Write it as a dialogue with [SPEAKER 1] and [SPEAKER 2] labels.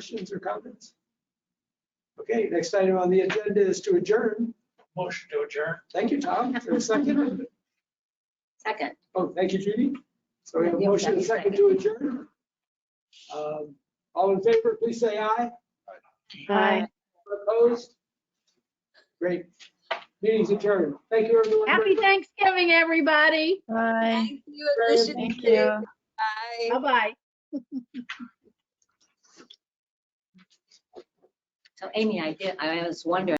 [SPEAKER 1] Questions or comments? Okay, next item on the agenda is to adjourn.
[SPEAKER 2] Motion to adjourn.
[SPEAKER 1] Thank you, Tom, for a second.
[SPEAKER 3] Second.
[SPEAKER 1] Oh, thank you, Judy. So we have a
[SPEAKER 3] Yeah,
[SPEAKER 1] motion and a
[SPEAKER 3] second,
[SPEAKER 1] second to adjourn. Um, All in favor, please say aye.
[SPEAKER 4] Bye.
[SPEAKER 1] Opposed? Great. Meeting's adjourned. Thank you, everyone.
[SPEAKER 4] Happy Thanksgiving, everybody.
[SPEAKER 5] Bye.
[SPEAKER 3] Thank you.
[SPEAKER 1] Very
[SPEAKER 3] Alicia.
[SPEAKER 5] Thank you.
[SPEAKER 3] Bye.
[SPEAKER 4] Bye-bye.
[SPEAKER 3] So Amy, I did, I was wondering.